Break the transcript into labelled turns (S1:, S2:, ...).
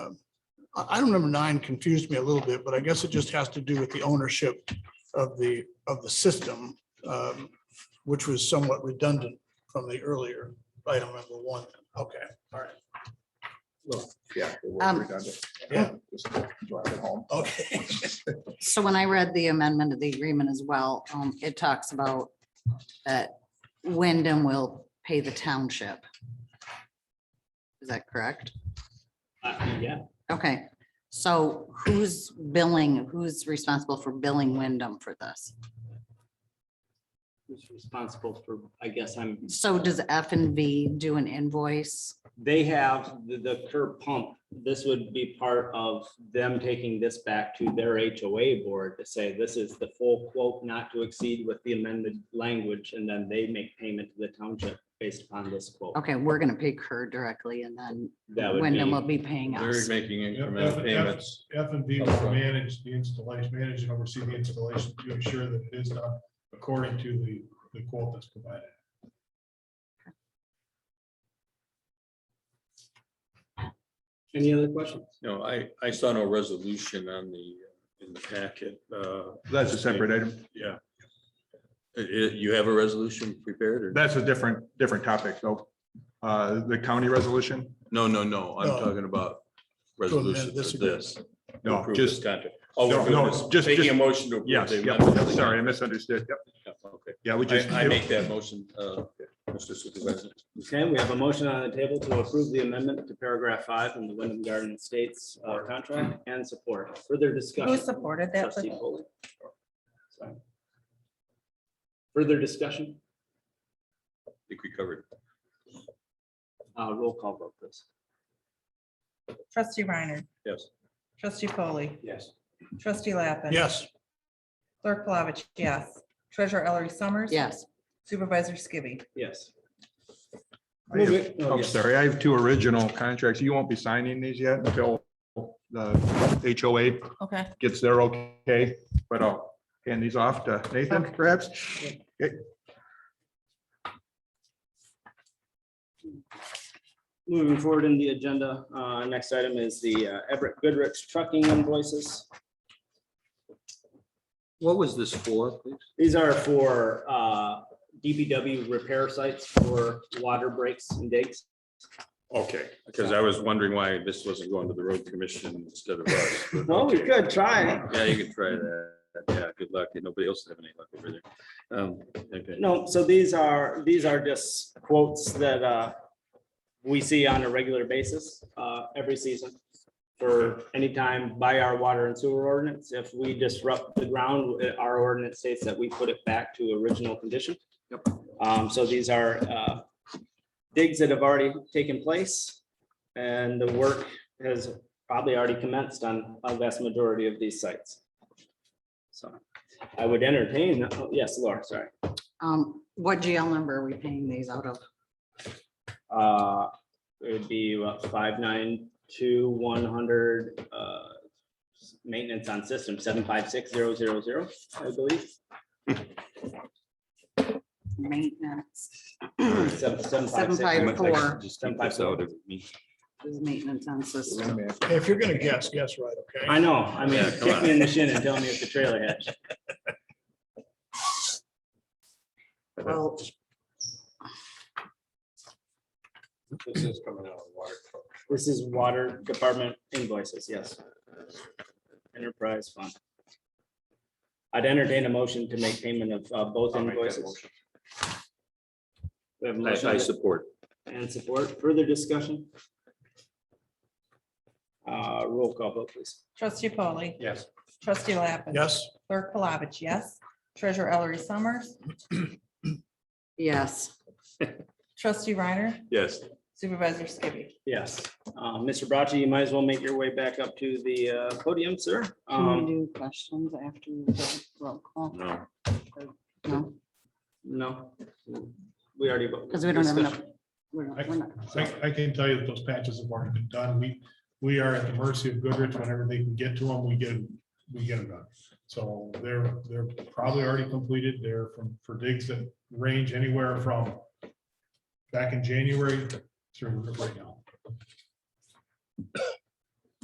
S1: I- Item number nine confused me a little bit, but I guess it just has to do with the ownership of the, of the system, um, which was somewhat redundant from the earlier item number one. Okay, all right.
S2: Yeah. it was
S3: Um,
S2: redundant.
S1: yeah.
S2: Just drive it home.
S1: Okay.
S3: So when I read the amendment of the agreement as well, um, it talks about that Wyndham will pay the township. Is that correct?
S4: Uh, Yeah,
S3: Okay, so who's billing, who's responsible for billing Wyndham for this?
S4: who's responsible for, I guess I'm,
S3: So does F and V do an invoice?
S4: they have the, the curb pump. This would be part of them taking this back to their HOA board to say, this is the full quote not to exceed with the amended language, and then they make payment to the township based upon this quote.
S3: Okay, we're gonna pay her directly and then
S4: That would
S3: Wyndham will
S4: be,
S3: be paying
S5: They're
S3: us.
S5: making
S6: Yeah,
S5: incremental
S6: F-
S5: payments.
S6: F and B will
S5: Upfront.
S6: manage the installation, manage and oversee the installation to ensure that it is done according to the, the quote that's provided.
S4: any other questions?
S5: No, I, I saw no resolution on the, in the packet. Uh,
S2: That's a separate item.
S5: yeah. Uh, uh, you have a resolution prepared or?
S2: That's a different, different topic, though. Uh, the county resolution?
S5: No, no, no. I'm
S1: No.
S5: talking about
S1: To amend
S5: resolution
S1: this
S5: for this. to
S2: No,
S5: approve this
S2: just,
S5: Contract. Oh,
S2: No,
S5: we're
S2: no,
S5: doing this-
S2: just-
S5: Making a
S2: just-
S5: motion to. approve
S2: yes,
S5: the
S2: yeah,
S5: amendment.
S2: sorry, I misunderstood. Yep,
S5: Yeah, Okay.
S2: yeah, we just.
S5: I, I make that motion, uh, Mr. Supervisor.
S4: Okay, we have a motion on the table to approve the amendment to paragraph five in the Wyndham Garden Estates uh, contract and support. Further discussion.
S7: Who supported that?
S4: Trustee Foley. Sorry. Further discussion,
S5: I think we covered. it.
S4: uh, roll call vote this.
S7: Trustee Reiner.
S5: Yes.
S7: Trustee Foley.
S4: Yes.
S7: Trustee Lappin.
S1: Yes,
S7: Clerk Plavich, yes. Treasurer Ellery Summers.
S3: Yes,
S7: Supervisor Skibby.
S4: Yes.
S2: I have-
S4: Move it. Oh,
S2: I'm
S4: yes.
S2: sorry, I have two original contracts. You won't be signing these yet until the HOA
S7: Okay.
S2: gets their okay, but I'll hand these off to Nathan perhaps. Okay.
S4: Moving forward in the agenda, uh, next item is the uh, Everett Goodrich trucking invoices.
S5: What was this for, please?
S4: These are for uh, DPW repair sites for water breaks and digs.
S5: Okay, because I was wondering why this wasn't going to the road commission instead of us. but
S2: Oh,
S4: Well, we
S5: okay.
S4: could try.
S5: Yeah, you could try that. Yeah, good luck. Nobody else have any luck over there. Um, okay.
S4: No, so these are, these are just quotes that uh, we see on a regular basis uh, every season for any time by our water and sewer ordinance. If we disrupt the ground, uh, our ordinance states that we put it back to original condition. Um, So these are uh, digs that have already taken place and the work has probably already commenced on a vast majority of these sites. So I would entertain, oh, yes, Laura, sorry.
S3: um, what GL number are we paying these out of?
S4: Uh, it would be about five nine two one hundred, uh, maintenance on system, seven five six zero zero zero, I believe.
S3: Maintenance,
S4: Seven, seven
S3: seven
S4: five six.
S3: five four
S5: Just keep this out of me.
S3: is maintenance on system.
S1: if you're gonna guess, guess right, okay?
S4: I know, I mean,
S5: Yeah, come
S4: kick
S5: on.
S4: me in the shin and tell me it's a trailer hitch.
S3: Well,
S5: This is coming out of the water.
S4: This is water department invoices, yes. Enterprise fund. I'd entertain a motion to make payment of uh, both
S5: I'll make that
S4: invoices.
S5: motion.
S4: We have a
S5: I, I
S4: motion
S5: support.
S4: and support. Further discussion? Uh, roll call vote, please.
S7: Trustee Foley.
S5: Yes.
S7: Trustee Lappin.
S1: Yes,
S7: Clerk Plavich, yes. Treasurer Ellery Summers.
S3: yes,
S7: Trustee Reiner.
S5: Yes.
S7: Supervisor Skibby.
S4: Yes, Uh, Mr. Bracci, you might as well make your way back up to the uh, podium, sir.
S3: can we
S4: Um,
S3: do questions after we vote? roll call?
S5: No.
S3: No,
S4: No, we already. voted.
S3: because we don't have enough. we're not- we're not-
S6: I, I can tell you that those patches have already been done. We, we are at the mercy of Goodrich. Whenever they can get to them, we get, we get them done. So they're, they're probably already completed. They're from, for digs that range anywhere from back in January through right now.